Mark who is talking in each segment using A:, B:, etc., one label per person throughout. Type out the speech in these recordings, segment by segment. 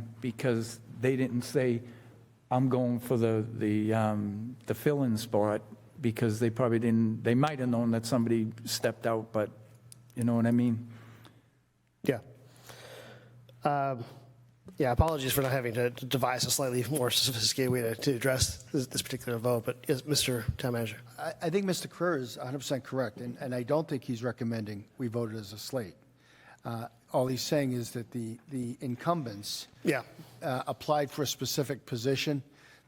A: time because they didn't say, I'm going for the, the, um, the fill-in spot because they probably didn't, they might have known that somebody stepped out, but you know what I mean?
B: Yeah. Um, Yeah, apologies for not having to to devise a slightly more sophisticated way to- to address this this particular vote, but yes, Mr. Town Manager.
C: I, I think Mr. Kerr is 100% correct, and, and I don't think he's recommending we vote it as a slate. Uh, All he's saying is that the, the incumbents
B: Yeah,
C: uh, applied for a specific position,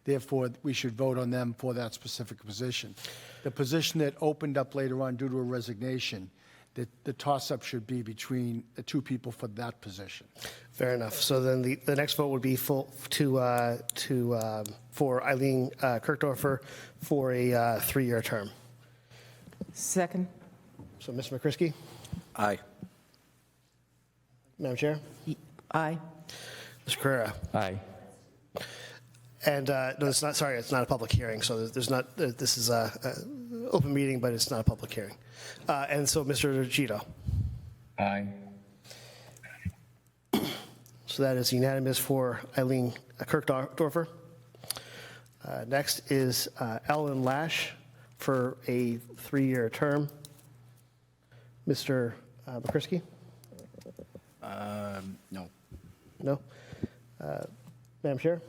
C: therefore, we should vote on them for that specific position. The position that opened up later on due to a resignation, that the toss-up should be between the two people for that position.
B: fair enough. So then the, the next vote would be full to, uh, to, uh, for Eileen uh, Kirkdorfer for a uh, three-year term.
D: Second.
B: So Ms. McCrisky,
E: Aye.
B: Madam Chair,
D: Aye.
B: Mr. Carrera.
A: Aye.
B: And, uh, no, it's not, sorry, it's not a public hearing, so there's- there's not, uh, this is a, a open meeting, but it's not a public hearing. Uh, And so Mr. Gito.
F: Aye.
B: So that is unanimous for Eileen Kirkdorfer. Uh, Next is uh, Ellen Lash for a three-year term. Mr. uh, McCrisky?
E: No.
B: No? Uh, Madam Chair?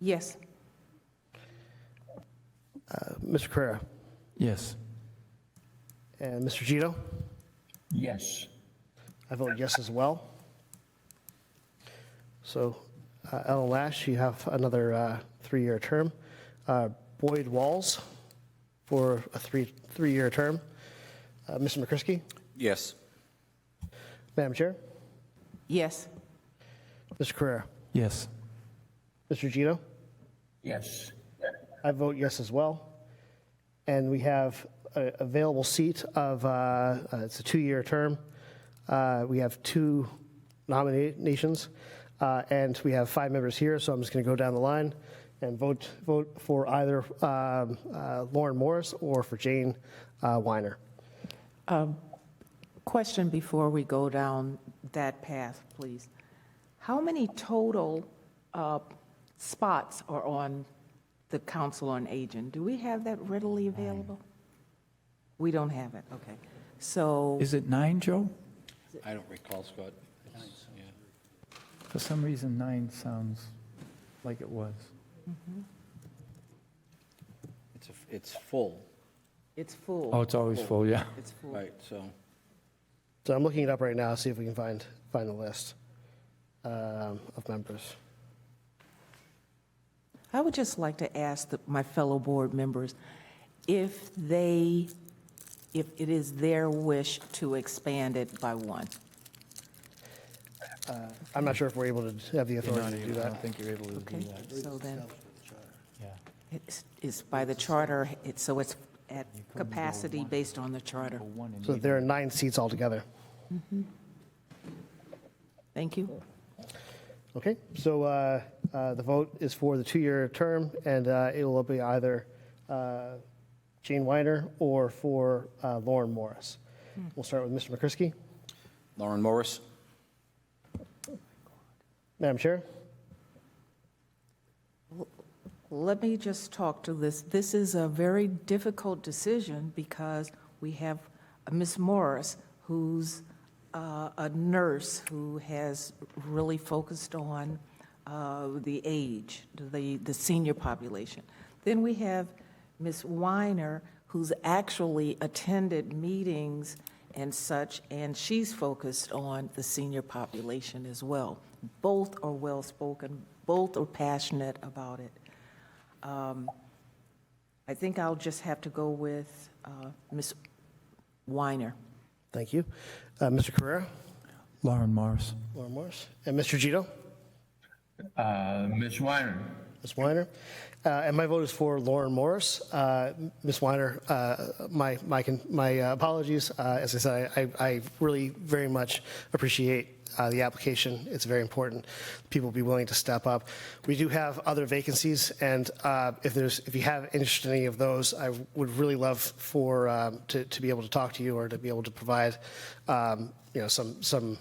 D: Yes.
B: Mr. Carrera?
A: Yes.
B: And Mr. Gito?
F: Yes.
B: I vote yes as well. So uh, Ellen Lash, you have another uh, three-year term. Uh, Boyd Walls for a three, three-year term. Uh, Mr. McCrisky?
E: Yes.
B: Madam Chair?
D: Yes.
B: Mr. Carrera?
A: Yes.
B: Mr. Gito?
F: Yes.
B: I vote yes as well. And we have an available seat of, uh, uh, it's a two-year term. Uh, We have two nominations, uh, and we have five members here, so I'm just going to go down the line and vote, vote for either um, uh, Lauren Morris or for Jane uh, Weiner.
D: Question before we go down that path, please. How many total uh, spots are on the Council on Aging? Do we have that readily available? We don't have it, okay. So,
A: Is it nine, Joe?
E: I don't recall, Scott. Yeah.
A: For some reason, nine sounds like it was.
E: It's, a- it's full,
D: it's
A: Oh,
D: full.
A: it's always full, yeah.
D: It's full.
E: right, so,
B: So I'm looking it up right now, see if we can find, find the list um, of members.
D: I would just like to ask the- my fellow board members if they, if it is their wish to expand it by one.
B: I'm not sure if we're able to have the authority to do that.
A: think you're able to
D: Okay, so then,
A: yeah.
D: it's, it's by the charter, it's, so it's at capacity based on the charter.
B: So there are nine seats altogether.
D: Thank you.
B: Okay, so uh, uh, the vote is for the two-year term, and uh, it will be either uh, Jane Weiner or for uh, Lauren Morris. We'll start with Mr. McCrisky.
E: Lauren Morris?
B: Madam Chair?
D: Let me just talk to this. This is a very difficult decision because we have Ms. Morris, who's uh, a nurse who has really focused on uh, the age, the, the senior population. Then we have Ms. Weiner, who's actually attended meetings and such, and she's focused on the senior population as well. Both are well-spoken, both are passionate about it. I think I'll just have to go with uh, Ms. Weiner.
B: Thank you. Uh, Mr. Carrera?
A: Lauren Morris.
B: Lauren Morris? And Mr. Gito?
F: Uh, Ms. Weiner?
B: Ms. Weiner? Uh, And my vote is for Lauren Morris. Uh, Ms. Weiner, uh, my my con- my uh, apologies. Uh, As I said, I- I really very much appreciate uh, the application. It's very important people be willing to step up. We do have other vacancies, and uh, if there's, if you have interest in any of those, I would really love for, um, to to be able to talk to you or to be able to provide, um, you know, some some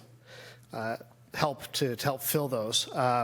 B: uh, help to to help fill those. Um,